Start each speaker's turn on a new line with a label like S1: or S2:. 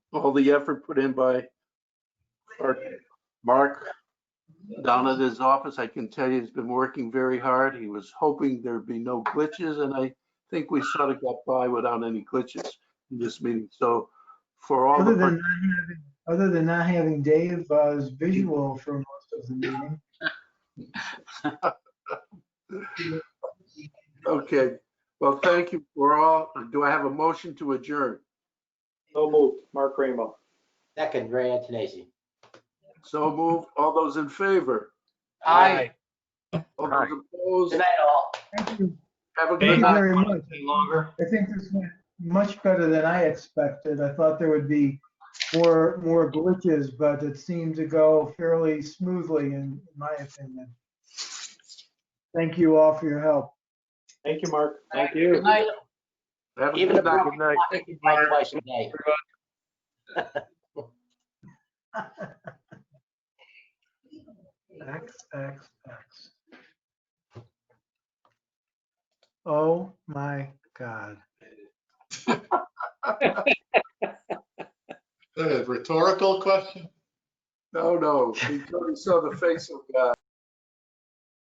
S1: all the effort put in by our Mark down at his office. I can tell you he's been working very hard. He was hoping there'd be no glitches, and I think we sort of got by without any glitches in this meeting. So for all
S2: Other
S1: the.
S2: than not having, other than not having Dave as visual for most of the meeting.
S1: Okay, well, thank you for all. Do I have a motion to adjourn?
S3: So moved, Mark Rainbow.
S4: Second, Ray Antonasi.
S1: So move. All those in favor?
S4: Aye.
S1: All those
S4: Good
S1: opposed?
S4: night, all.
S2: Thank you
S1: Have a
S2: Thank
S1: good
S2: you
S1: night.
S2: very much.
S3: Any longer?
S2: I think this went much better than I expected. I thought there would be more, more glitches, but it seemed to go fairly smoothly in my opinion. Thank you all for your help.
S3: Thank you, Mark.
S4: Thank
S3: you.
S1: Have a
S4: Even a
S1: good night.
S4: broken clock is right twice a day.
S2: X, X, X. Oh, my God.
S5: That is a rhetorical question.
S1: No, no, we totally saw the face of God.